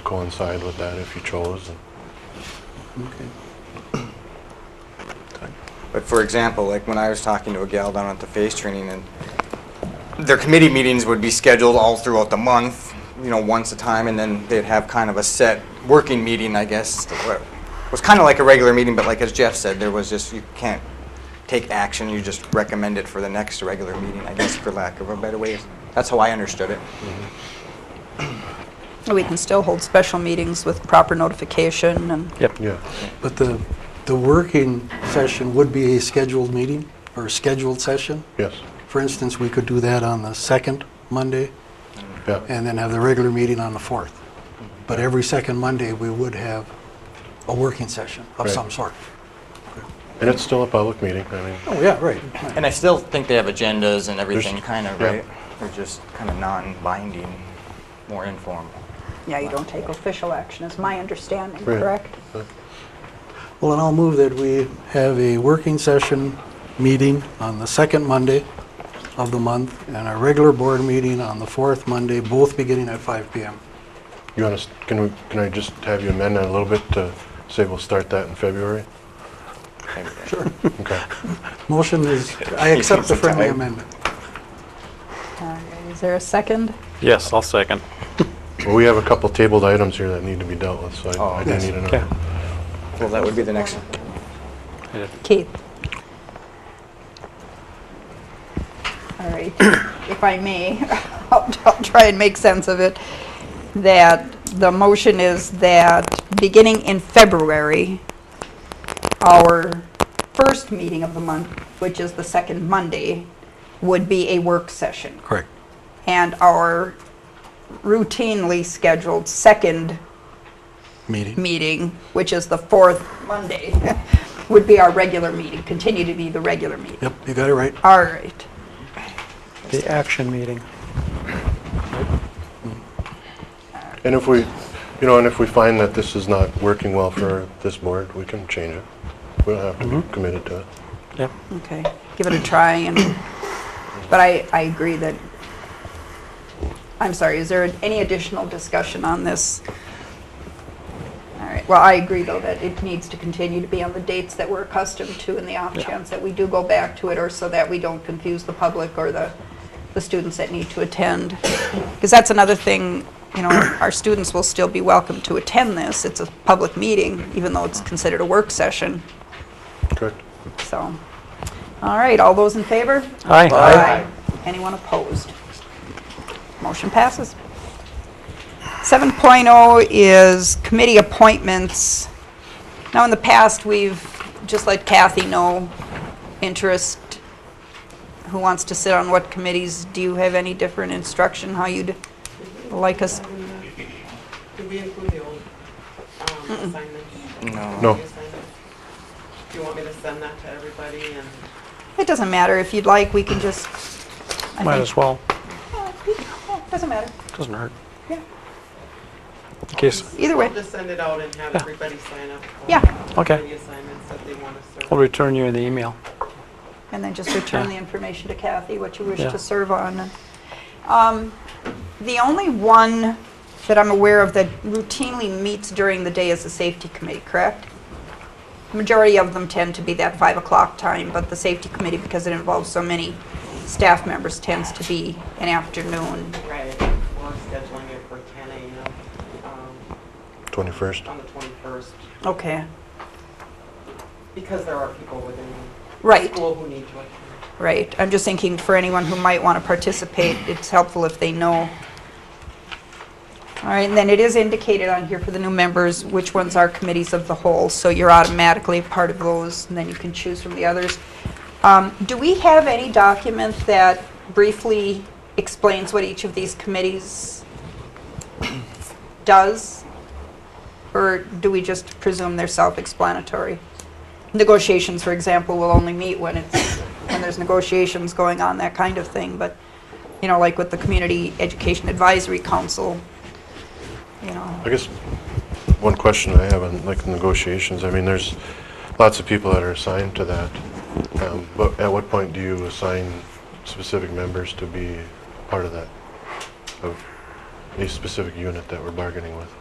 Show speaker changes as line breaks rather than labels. to coincide with that if you chose.
Okay.
But for example, like when I was talking to a gal down at the face training and their committee meetings would be scheduled all throughout the month, you know, once a time, and then they'd have kind of a set working meeting, I guess. that wa- Was kind of like a regular meeting, but like as Jeff said, there was just, you can't take action, you just recommend it for the next regular meeting, I guess, for lack of a better way. That's how I understood it.
We can still hold special meetings with proper notification and
Yeah,
But the, the working session would be a scheduled meeting or a scheduled session.
yes,
For instance, we could do that on the second Monday
yeah,
and then have the regular meeting on the fourth. But every second Monday, we would have a working session of
Right.
some sort.
and it's still a public meeting, I mean,
Oh, yeah, right. right.
And I still think they have agendas and everything, kind of,
yeah.
right? They're just kind of non-binding, more informal.
Yeah, you don't take official action, is my understanding,
Right.
correct?
Well, and I'll move that we have a working session meeting on the second Monday of the month and a regular board meeting on the fourth Monday, both beginning at 5 PM.
you want to, can we, can I just have you amend that a little bit to say we'll start that in February? Okay,
Motion is, I accept the friendly amendment.
All right, Uh, Is there a second?
Yes, I'll second.
well, we have a couple tabled items here that need to be dealt with, so
Oh,
I I do
yes.
need another.
Okay.
Well, that would be the next
Keith? All right, if I may, I'll I'll try and make sense of it. That the motion is that beginning in February, our first meeting of the month, which is the second Monday, would be a work session.
Correct.
And our routinely scheduled second
Meeting.
meeting, which is the fourth Monday, would be our regular meeting, continue to be the regular meeting.
Yep, you got it right.
All right.
The action meeting.
And if we, you know, and if we find that this is not working well for this board, we can change it. We don't have to be committed to it.
Yep.
Okay, give it a try and, but I, I agree that, I'm sorry, is there any additional discussion on this? All right, well, I agree though that it needs to continue to be on the dates that we're accustomed to in the off
Yeah.
chance that we do go back to it or so that we don't confuse the public or the, the students that need to attend. Because that's another thing, you know, our students will still be welcome to attend this. It's a public meeting, even though it's considered a work session.
Correct?
So, all right, all those in favor?
Aye.
Anyone opposed? Motion passes. 7.0 is committee appointments. Now, in the past, we've just let Kathy know interest, who wants to sit on what committees. Do you have any different instruction, how you'd like us?
Did we include the old um, assignments?
No.
No.
The assignments? Do you want me to send that to everybody and?
It doesn't matter. If you'd like, we can just, I
Might
think,
as well.
Oh, doesn't matter.
Doesn't hurt.
Yeah.
In case,
Either way.
I'll just send it out and have
Yeah.
everybody sign up. for
Yeah.
Okay.
The assignments that they want to
I'll
serve.
return you in the email.
And then just return
Yeah.
the information to Kathy, what you wish
Yeah.
to serve on. Um, The only one that I'm aware of that routinely meets during the day is the Safety Committee, correct? Majority of them tend to be that 5 o'clock time, but the Safety Committee, because it involves so many staff members, tends to be an afternoon.
Right, we're scheduling it for 10 AM um,
21st?
on the 21st
Okay,
because there are people within
right.
school who need to attend.
Right, I'm just thinking for anyone who might want to participate, it's helpful if they know. All right, and then it is indicated on here for the new members which ones are committees of the whole, so you're automatically a part of those, and then you can choose from the others. Um, Do we have any document that briefly explains what each of these committees does? Or do we just presume they're self-explanatory? Negotiations, for example, will only meet when it's, when there's negotiations going on, that kind of thing, but, you know, like with the Community Education Advisory Council, you know,
I guess one question I have on like negotiations, I mean, there's lots of people that are assigned to that. Um, But at what point do you assign specific members to be part of that? Of a specific unit that we're bargaining with?